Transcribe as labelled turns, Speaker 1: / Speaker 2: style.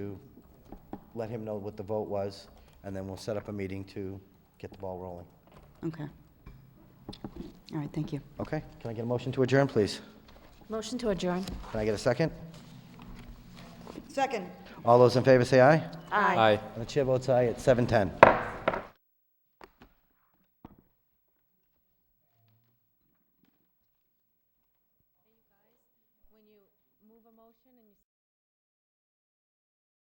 Speaker 1: to let him know what the vote was, and then we'll set up a meeting to get the ball rolling.
Speaker 2: Okay. All right, thank you.
Speaker 1: Okay, can I get a motion to adjourn, please?
Speaker 3: Motion to adjourn.
Speaker 1: Can I get a second?
Speaker 4: Second.
Speaker 1: All those in favor say aye.
Speaker 3: Aye.
Speaker 5: Aye.
Speaker 1: And the chair votes aye at 7:10.